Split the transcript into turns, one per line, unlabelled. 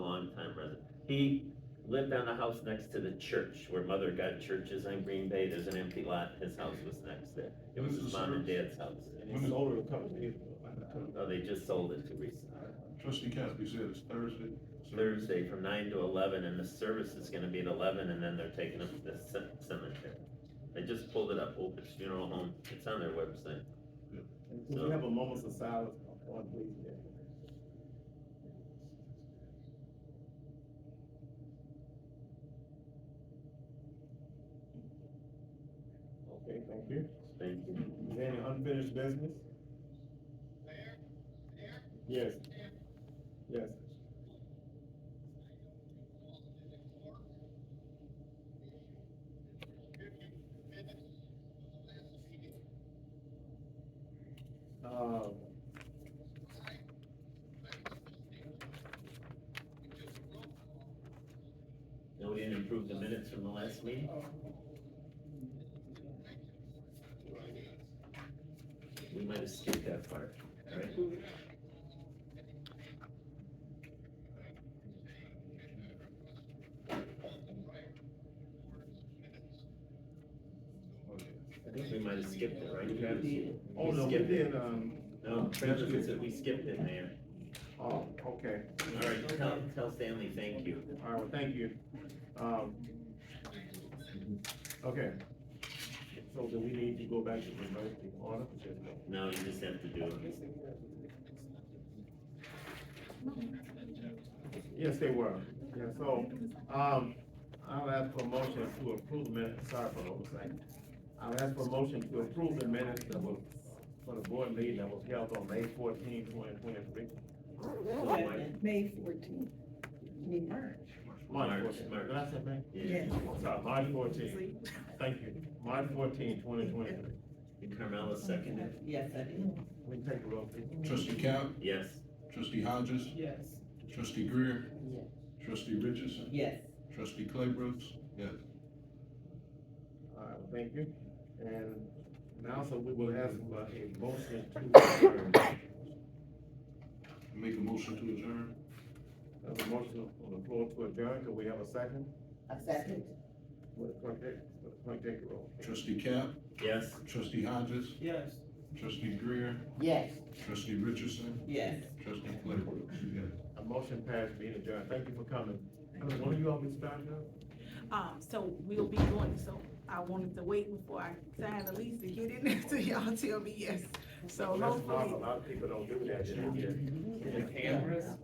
He lived on a house next to the church where Mother God Church is on Green Bay. There's an empty lot. His house was next there. It was his mom and dad's house.
When is older, the comes in.
No, they just sold it to recently.
Trustee Cap, you said it's Thursday? so-
Thursday from nine to eleven and the service is gonna be at eleven and then they're taking them to the ce- cemetery. I just pulled it up, Opus Funeral Home. It's on their website.
Can we have a moment of silence on Blaze Day? Okay, thank you.
Thank you.
Is there any unfinished business? Yes. Yes. Um,
No, we didn't approve the minutes from the last meeting? We might have skipped that part, right? I think we might have skipped it, right? Travis?
oh, no, we
Skip it.
did, um,
No, Travis said we skipped it, Mayor.
oh, okay.
All right, tell, tell Stanley, thank you.
All right, well, thank you. Um, okay. So do we need to go back to the emergency order?
No, you just have to do it.
Yes, they were. Yeah, so, um, I'll ask for a motion to approve minutes, sorry for oversight. I'll ask for a motion to approve the minutes that was, for the board meeting that was held on May 14, 2023.
May fourteenth.
March
March,
fourteen,
March.
did I say May?
Yeah,
I'm sorry, March fourteen, thank you. March 14, 2023.
and Carmella seconded,
Yes, I did.
We can take a roll, please.
Trustee Cap,
yes.
trustee Hodges,
Yes.
trustee Greer, trustee Richardson,
Yes.
trustee Claybrook, yes.
All right, well, thank you. And now, so we will ask for a motion to adjourn.
Make a motion to adjourn.
There's a motion on the floor to adjourn. Could we have a second?
A second.
Would the clerk take, would the clerk take the roll?
Trustee Cap,
Yes.
trustee Hodges,
Yes.
trustee Greer,
Yes.
trustee Richardson,
Yes.
trustee Claybrook, yes.
A motion passed, being adjourned. Thank you for coming. One of you all be starting up?
Um, so we'll be doing, so I wanted to wait before I sign the lease to get in there till y'all tell me yes. So Oh,
That's not, a
hopefully,
lot of people don't do that. you know?
The cameras?